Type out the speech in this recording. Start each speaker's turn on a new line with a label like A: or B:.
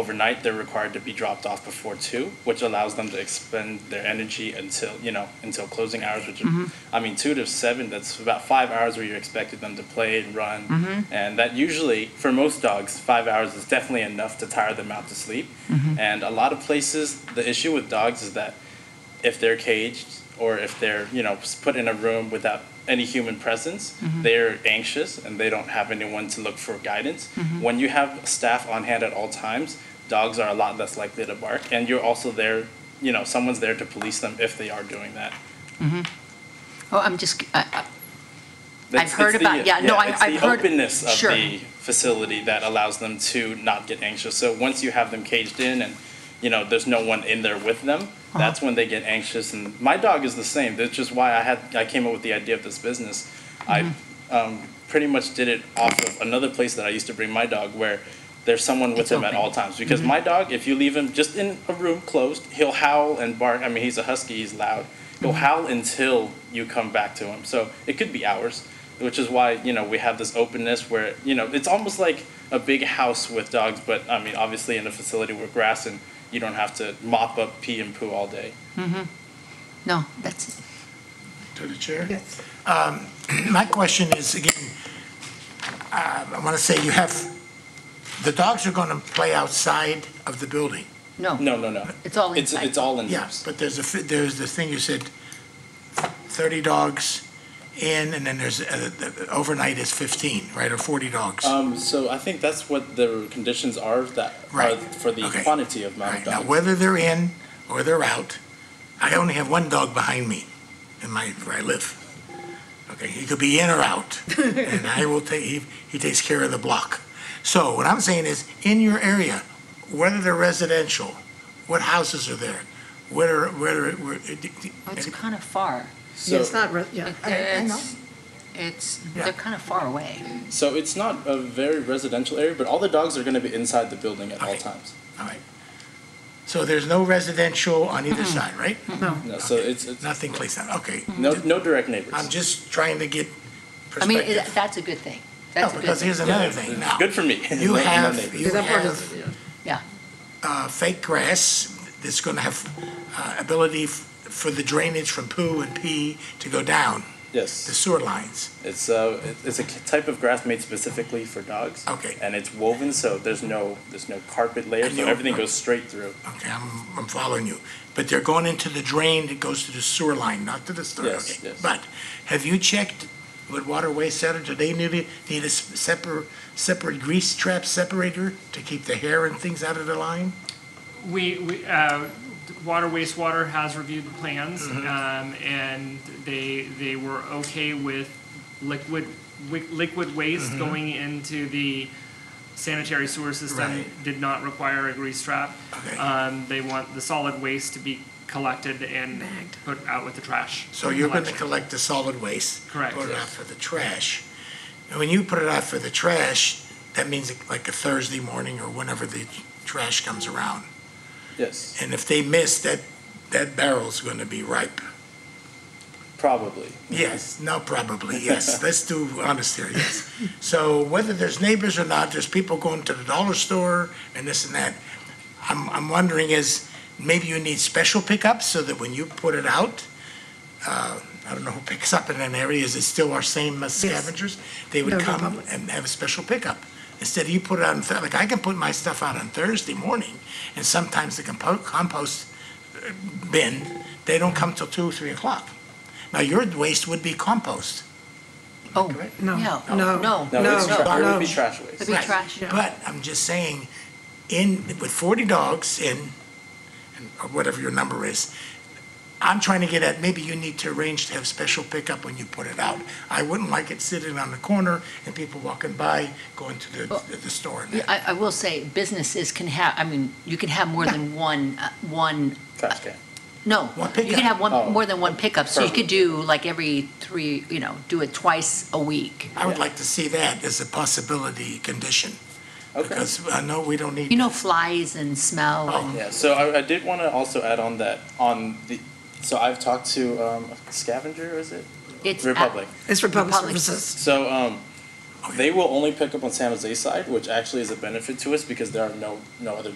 A: overnight they're required to be dropped off before two which allows them to expend their energy until you know until closing hours which are, i mean two to seven that's about five hours where you're expected them to play and run and that usually for most dogs five hours is definitely enough to tire them out to sleep and a lot of places the issue with dogs is that if they're caged or if they're you know s- put in a room without any human presence they're anxious and they don't have anyone to look for guidance when you have staff on hand at all times dogs are a lot less likely to bark and you're also there you know someone's there to police them if they are doing that
B: Oh, I'm just, I- I-
A: That's-
B: heard
A: it's
B: about- yeah, no, I-
A: it's the
B: I've heard-
A: openness of
B: sure.
A: the facility that allows them to not get anxious. So once you have them caged in and you know there's no one in there with them,
B: Uh-huh.
A: that's when they get anxious. And my dog is the same. That's just why I had I came up with the idea of this business. I um, pretty much did it off of another place that I used to bring my dog where. There's someone with
B: It's
A: him at
B: open. Mm-hmm.
A: all times because my dog, if you leave him just in a room closed, he'll howl and bark. I mean, he's a husky, he's loud. He'll
B: Mm-hmm.
A: howl until you come back to him. So it could be hours, which is why you know we have this openness where you know it's almost like a big house with dogs, but I mean, obviously in a facility with grass and you don't have to mop up pee and poo all day.
B: no, that's,
C: To the chair? Um,
D: Yes.
C: My question is, again, uh, I want to say you have, the dogs are going to play outside of the building.
B: no.
A: No, no, no.
B: It's all
A: It's
B: inside.
A: it's all in.
C: Yes, but there's a, fi- there's the thing you said, 30 dogs in, and then there's, uh, the- overnight is 15, right, or 40 dogs?
A: Um, so I think that's what the conditions are that are
C: Right.
A: for the
C: Okay.
A: quantity of
C: All
A: amount of
C: right, now
A: dogs.
C: whether they're in or they're out, I only have one dog behind me in my, where I live. Okay, he could be in or out, and I will take, he, he takes care of the block. So what I'm saying is, in your area, whether they're residential, what houses are there? Whether, whether, where-
B: Oh, It's kind of far.
D: Yeah, it's not, re- yeah.
C: I know.
B: It's, it's,
C: Yeah.
B: they're kind of far away.
A: So it's not a very residential area, but all the dogs are going to be inside the building at all
C: Okay.
A: times.
C: all right. So there's no residential on either side, right?
D: No.
A: No, so it's, it's
C: Nothing placed on, okay.
A: no no direct neighbors.
C: I'm just trying to get
B: I mean,
C: perspective.
B: it- that's a good thing.
C: No,
B: That's a good
C: because here's
B: thing.
C: another thing now.
A: Good for me.
C: You
A: No- no
C: have,
A: neighbors.
C: you
D: That part
C: have
D: is, yeah.
B: Yeah,
C: uh, fake grass that's going to have uh, ability f- for the drainage from poo and pee to go down the
A: Yes,
C: sewer lines.
A: it's uh, it- it's a k- type of grass made specifically for dogs.
C: Okay.
A: And it's woven so there's no there's no carpet layer,
C: And
A: so
C: you-
A: everything goes straight through.
C: Okay, I'm, I'm following you. But they're going into the drain that goes to the sewer line, not to the sewer.
A: Yes,
C: okay.
A: yes.
C: But have you checked with Water Waste Center, do they need, a- need a s- separate, separate grease trap separator to keep the hair and things out of the line?
E: We, we, uh, water, wastewater has reviewed the plans,
C: Mm-hmm.
E: um, and they, they were okay with liquid, wi- liquid
C: Mm-hmm.
E: waste going into the sanitary sewer system.
C: Right.
E: Did not require a grease trap.
C: Okay.
E: Um, they want the solid waste to be collected and put out with the trash.
C: So you're going to
E: collection.
C: collect the solid waste?
E: Correct,
C: Put it out
E: yes.
C: for the trash. And when you put it out for the trash, that means like a Thursday morning or whenever the trash comes around.
A: Yes,
C: And if they miss, that, that barrel's going to be ripe.
A: probably.
C: Yes, no, probably, yes. Let's do honest here, yes. So whether there's neighbors or not, there's people going to the dollar store and this and that. I'm, I'm wondering is, maybe you need special pickups so that when you put it out, uh, I don't know who picks up in that area, is it still our same uh, scavengers? They would
D: No,
C: come
D: Republic.
C: and have a special pickup. Instead, you put it on, Thur- like, I can put my stuff out on Thursday morning, and sometimes the compo- compost uh, bin, they don't come till two, three o'clock. Now, your waste would be compost.
B: oh,
C: Correct?
B: no,
D: No.
B: no,
D: No.
B: no,
A: No, it's
D: No,
A: tra- it
D: no.
A: would be trash waste.
B: It'd be
C: Right.
B: trash.
C: But I'm just saying, in, with 40 dogs in, and- or whatever your number is, I'm trying to get at, maybe you need to arrange to have special pickup when you put it out. I wouldn't like it sitting on the corner and people walking by going to the, the- the store. and
B: Yeah,
C: that.
B: I, I will say businesses can have, I mean, you can have more than one, uh, one,
A: Trash can.
B: no.
C: One
B: You
C: pickup.
B: can have
A: Oh.
B: one, more than one pickup, so you
A: Perfect.
B: could do like every three, you know, do it twice a week.
C: I would like to see that as a possibility condition,
A: Okay.
C: because I know we don't need.
B: You know, flies and smell
C: Oh.
B: and
A: Yeah, so I, I did want to also add on that on the, so I've talked to um, scavenger, is it?
B: it's. at-
A: Republic.
D: It's Republic
B: Republic.
D: Services.
A: So um, they will only pick up on San Jose side, which actually is a benefit to us because there are no no other